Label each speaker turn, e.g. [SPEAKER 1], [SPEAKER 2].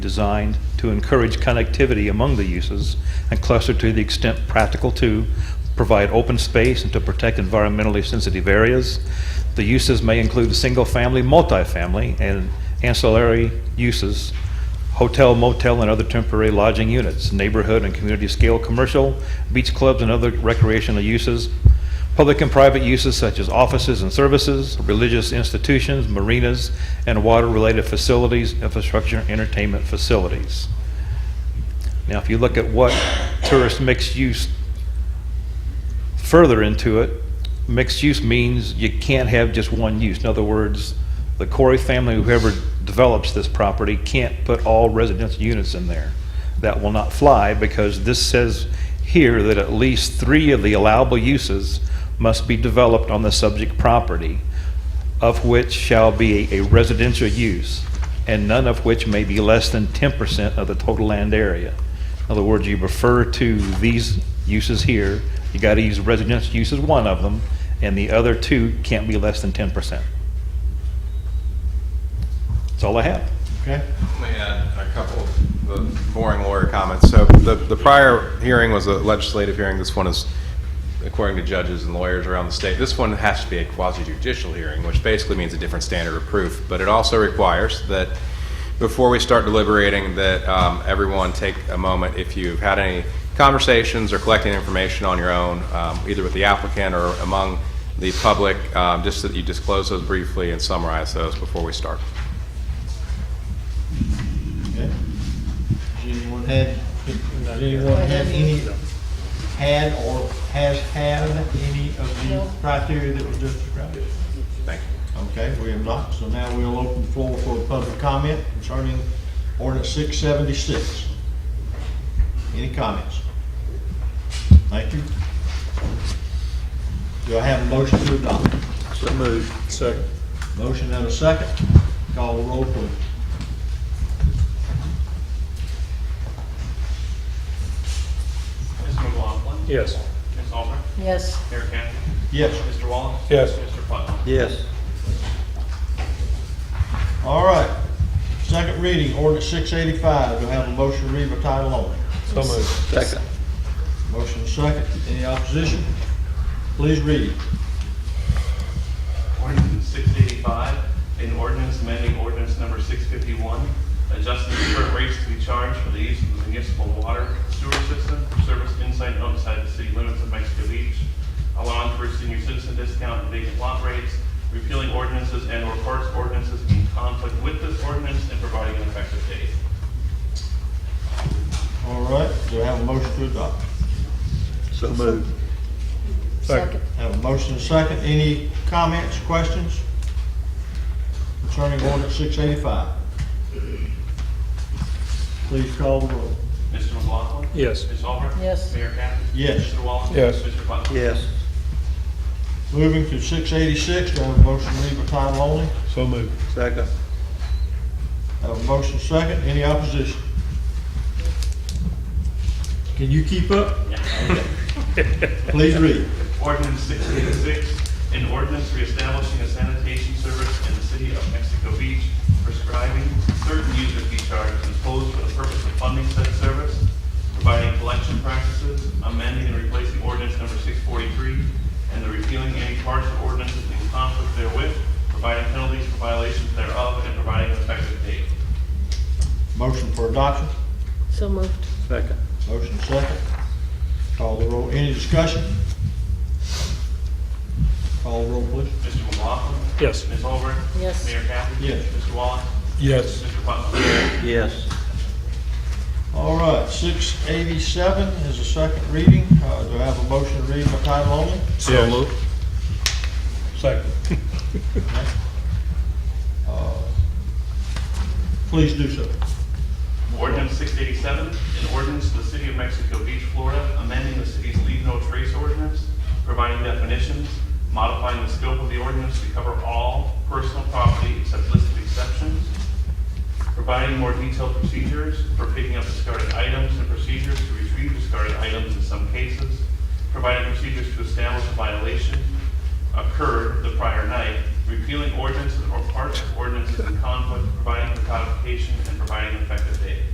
[SPEAKER 1] designed to encourage connectivity among the uses and cluster to the extent practical to provide open space and to protect environmentally sensitive areas. The uses may include single-family, multifamily, and ancillary uses, hotel, motel, and other temporary lodging units, neighborhood and community-scale commercial, beach clubs, and other recreational uses, Public and private uses such as offices and services, religious institutions, marinas, and water-related facilities, infrastructure, entertainment facilities. Now, if you look at what tourist mixed use further into it, mixed use means you can't have just one use. In other words, the Corey family, whoever develops this property, can't put all residential units in there. That will not fly because this says here that at least three of the allowable uses must be developed on the subject property, of which shall be a residential use, and none of which may be less than 10% of the total land area. In other words, you refer to these uses here, you got to use residential use as one of them, and the other two can't be less than 10%. That's all I have.
[SPEAKER 2] Okay,
[SPEAKER 3] Let me add a couple of the boring lawyer comments. So the, the prior hearing was a legislative hearing. This one is, according to judges and lawyers around the state, this one has to be a quasi judicial hearing, which basically means a different standard of proof. But it also requires that before we start deliberating, that um, everyone take a moment, if you've had any conversations or collecting information on your own, um, either with the applicant or among the public, um, just that you disclose those briefly and summarize those before we start.
[SPEAKER 2] okay. Does anyone had, does anyone have any, had or has had any of the criteria that was just described?
[SPEAKER 3] Thank you.
[SPEAKER 2] Okay, we have not, so now we'll open the floor for public comment concerning ordinance six seventy-six. Any comments? Thank you. Do I have a motion to adopt?
[SPEAKER 4] So moved. Second.
[SPEAKER 2] Motion and a second. Call the roll, please.
[SPEAKER 5] Mr. McLaughlin.
[SPEAKER 4] Yes.
[SPEAKER 5] Ms. Albert.
[SPEAKER 6] Yes,
[SPEAKER 5] Mayor Campbell.
[SPEAKER 2] Yes.
[SPEAKER 5] Mr. Wallace.
[SPEAKER 4] Yes.
[SPEAKER 5] Mr. Putnam.
[SPEAKER 4] Yes.
[SPEAKER 2] All right, second reading, ordinance six eighty-five, do I have a motion to read by title only?
[SPEAKER 4] So moved. Second.
[SPEAKER 2] Motion second, any opposition? Please read.
[SPEAKER 5] Ordinance 685, an ordinance amending ordinance number 651, adjusting the current rates to be charged for the use of the municipal water sewer system for service inside and outside the city limits of Mexico Beach, allowing for senior citizen discount and vacant lot rates, repealing ordinances and/or parts ordinances in conflict with this ordinance and providing an effective date.
[SPEAKER 2] All right, do I have a motion to adopt?
[SPEAKER 4] So moved.
[SPEAKER 6] second,
[SPEAKER 2] Have a motion second, any comments, questions concerning ordinance six eighty-five? Please call the roll.
[SPEAKER 5] Mr. McLaughlin.
[SPEAKER 4] Yes.
[SPEAKER 5] Ms. Albert.
[SPEAKER 6] Yes.
[SPEAKER 5] Mayor Campbell.
[SPEAKER 2] Yes.
[SPEAKER 5] Mr. Wallace.
[SPEAKER 4] Yes.
[SPEAKER 5] Mr. Putnam.
[SPEAKER 4] Yes.
[SPEAKER 2] Moving to six eighty-six, do I have a motion to read by title only?
[SPEAKER 4] So moved. Second.
[SPEAKER 2] Have a motion second, any opposition? Can you keep up? Please read.
[SPEAKER 5] Ordinance oh six eighty-six, an ordinance reestablishing a sanitation service in the city of Mexico Beach, prescribing certain user fee charges imposed for the purpose of funding said service, providing collection practices, amending and replacing ordinance number six forty-three, and the repealing any parts of ordinances in conflict therewith, providing penalties for violations thereof, and providing an effective date.
[SPEAKER 2] Motion for adoption,
[SPEAKER 6] so moved.
[SPEAKER 4] Second.
[SPEAKER 2] motion second. Call the roll, any discussion? Call the roll, please.
[SPEAKER 5] Mr. McLaughlin.
[SPEAKER 4] Yes.
[SPEAKER 5] Ms. Holbrook.
[SPEAKER 6] Yes.
[SPEAKER 5] Mayor Catherine.
[SPEAKER 2] Yes.
[SPEAKER 5] Mr. Wallace.
[SPEAKER 4] Yes.
[SPEAKER 5] Mr. Putnam.
[SPEAKER 4] Yes.
[SPEAKER 2] All right, six eighty-seven is a second reading, uh, do I have a motion to read by title only?
[SPEAKER 4] So moved. Second.
[SPEAKER 2] Uh, Please do so.
[SPEAKER 5] Ordinance six eighty-seven, an ordinance to the city of Mexico Beach, Florida, amending the city's leave no trace ordinance, providing definitions, modifying the scope of the ordinance to cover all personal property except listed exceptions, providing more detailed procedures for picking up discarded items and procedures to retrieve discarded items in some cases, providing procedures to establish a violation occurred the prior night, repealing ordinances or parts of ordinances in conflict, providing for codification, and providing effective date.